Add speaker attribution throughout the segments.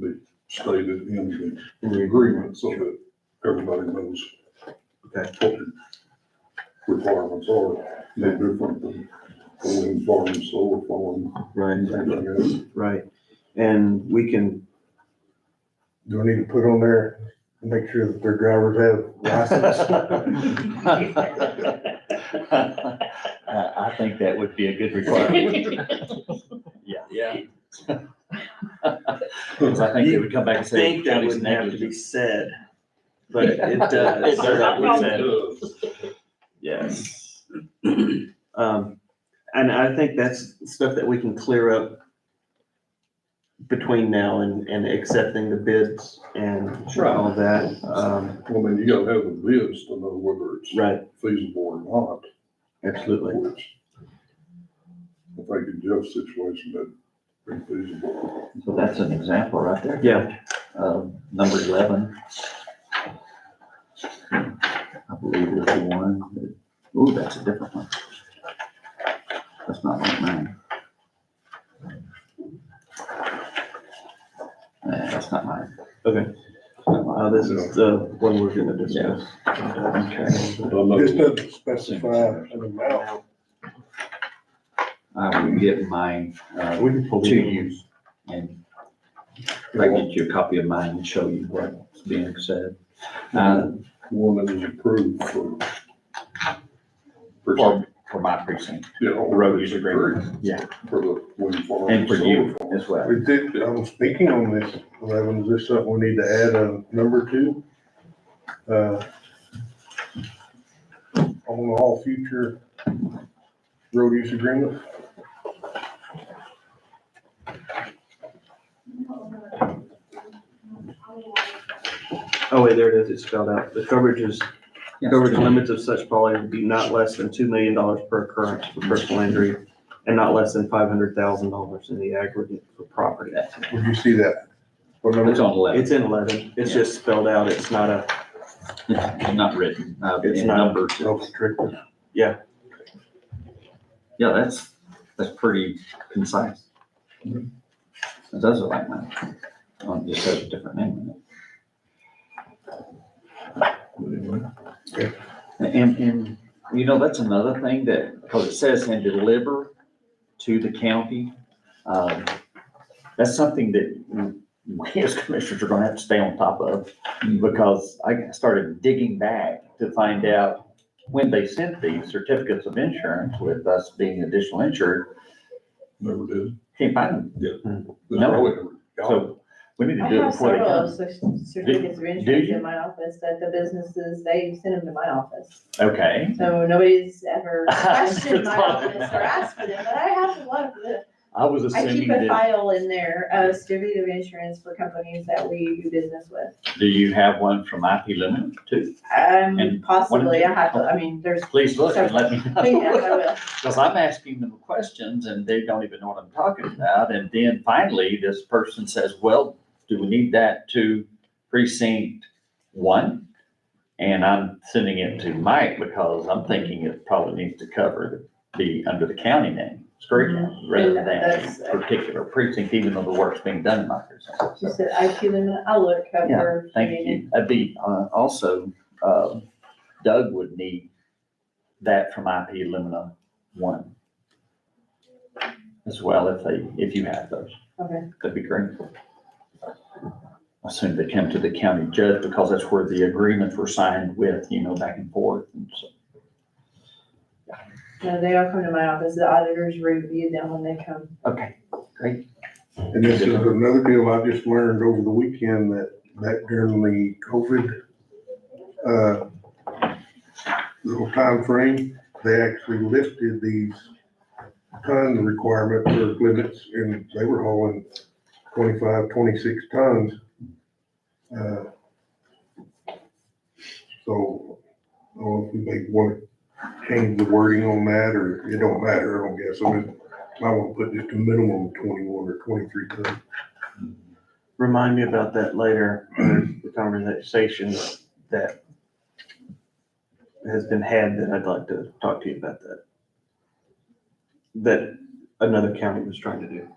Speaker 1: be stated in the, in the agreement so that everybody knows
Speaker 2: Okay.
Speaker 1: what the requirements are, they're different than the wind farm, solar farm,
Speaker 2: Right,
Speaker 1: anything else.
Speaker 2: right. And we can,
Speaker 3: Do we need to put on there, and make sure that their drivers have license?
Speaker 4: I, I think that would be a good requirement. Yeah.
Speaker 5: Yeah.
Speaker 4: Because I think they would come back
Speaker 5: I
Speaker 4: and say.
Speaker 5: think that
Speaker 4: "Johnny's
Speaker 5: wouldn't have to be
Speaker 4: negligent."
Speaker 5: said, but it does.
Speaker 4: It does have to be said.
Speaker 1: Uh,
Speaker 5: Yes.
Speaker 2: um, and I think that's stuff that we can clear up between now and, and accepting the bids and all that. Um,
Speaker 1: I mean, you gotta have the bids to know whether it's
Speaker 2: right,
Speaker 1: feasible or not.
Speaker 2: absolutely.
Speaker 1: Which, I think in Jeff's situation, that'd be feasible.
Speaker 4: So that's an example right there.
Speaker 2: Yeah,
Speaker 4: Uh, number eleven. I believe is the one that, ooh, that's a different one. That's not like mine. Yeah, that's not mine.
Speaker 2: Okay. uh, this is the one we're gonna discuss.
Speaker 4: Okay.
Speaker 1: I know-
Speaker 3: This doesn't specify an amount.
Speaker 4: I will get mine, uh,
Speaker 2: We can pull
Speaker 4: to
Speaker 2: these.
Speaker 4: you and if I get you a copy of mine and show you what's being said. Uh,
Speaker 1: One that is approved for. for-
Speaker 4: for, for my precinct
Speaker 1: Yeah.
Speaker 4: road use agreement.
Speaker 1: approved
Speaker 4: Yeah.
Speaker 1: For the wind farm.
Speaker 4: and for you
Speaker 1: solar farm.
Speaker 4: as well.
Speaker 3: We did, I'm speaking on this, eleven, is this something we need to add a number to? Uh, On all future road use agreements?
Speaker 2: Oh, wait, there it is, it's spelled out. The coverage is, coverage limits of such policy would be not less than two million dollars per occurrence for personal injury and not less than five hundred thousand dollars in the aggregate for property.
Speaker 3: Would you see that? What number?
Speaker 4: It's on eleven,
Speaker 2: It's in eleven, it's just spelled out, it's not a,
Speaker 4: it's not written, uh,
Speaker 2: It's
Speaker 4: in
Speaker 2: not-
Speaker 4: numbers.
Speaker 3: Self-restricted.
Speaker 4: Yeah, that's, that's pretty concise. It does look like mine. Oh, It just has a different name in it. And, and, you know, that's another thing that, because it says and deliver to the county. um, That's something that we as commissioners are gonna have to stay on top of because I started digging back to find out when they sent these certificates of insurance with us being additional insured,
Speaker 1: Never did.
Speaker 4: can't find them.
Speaker 1: There's
Speaker 4: No.
Speaker 1: probably never got it.
Speaker 4: So we need to
Speaker 6: I
Speaker 4: do it
Speaker 6: have
Speaker 4: before they
Speaker 6: several of
Speaker 4: come.
Speaker 6: those certificates of insurance
Speaker 4: you?
Speaker 6: in my office that the businesses, they send them to my office.
Speaker 4: Okay,
Speaker 6: So nobody's ever
Speaker 4: Asked
Speaker 6: questioned my
Speaker 4: for them.
Speaker 6: office or asked for them, but I have a lot of them.
Speaker 4: I was
Speaker 6: I
Speaker 4: assuming
Speaker 6: keep a
Speaker 4: that,
Speaker 6: file in there of certificate of insurance for companies that we do business with.
Speaker 4: do you have one from IP limit too?
Speaker 6: Um,
Speaker 4: And
Speaker 6: possibly, I have, to. I mean, there's,
Speaker 4: Please look and let me
Speaker 6: yeah, I
Speaker 4: know.
Speaker 6: will.
Speaker 4: Because I'm asking them questions and they don't even know what I'm talking about. And then finally, this person says, well, do we need that to precinct one? And I'm sending it to Mike because I'm thinking it probably needs to cover the, be under the county name, Scurry County, rather
Speaker 6: Mm-hmm. Yeah,
Speaker 4: than
Speaker 6: that's-
Speaker 4: particular precinct, even though the work's being done in my precinct.
Speaker 6: Just said IP limit, I'll look up
Speaker 4: Yeah,
Speaker 6: for.
Speaker 4: Thank you. I'd be, uh, also, uh, Doug would need that from IP Lumina one. As well, if they, if you have those,
Speaker 6: Okay,
Speaker 4: that'd be great. Assume they come to the county judge because that's where the agreements were signed with, you know, back and forth and so.
Speaker 6: no, they all come to my office, the auditors review them when they come.
Speaker 4: Okay, great.
Speaker 3: And this is another deal I just learned over the weekend that, that during the COVID, uh, little timeframe, they actually lifted these ton requirement for limits and they were hauling 25, 26 tons. Uh, So, I don't know if we may want to change the wording on that or it don't matter, I don't guess. I mean, I want to put just a minimum of twenty-one or twenty-three ton.
Speaker 2: remind me about that later, in the conversation that has been had that I'd like to talk to you about that. That another county was trying to do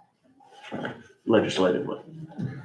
Speaker 2: uh, legislatively.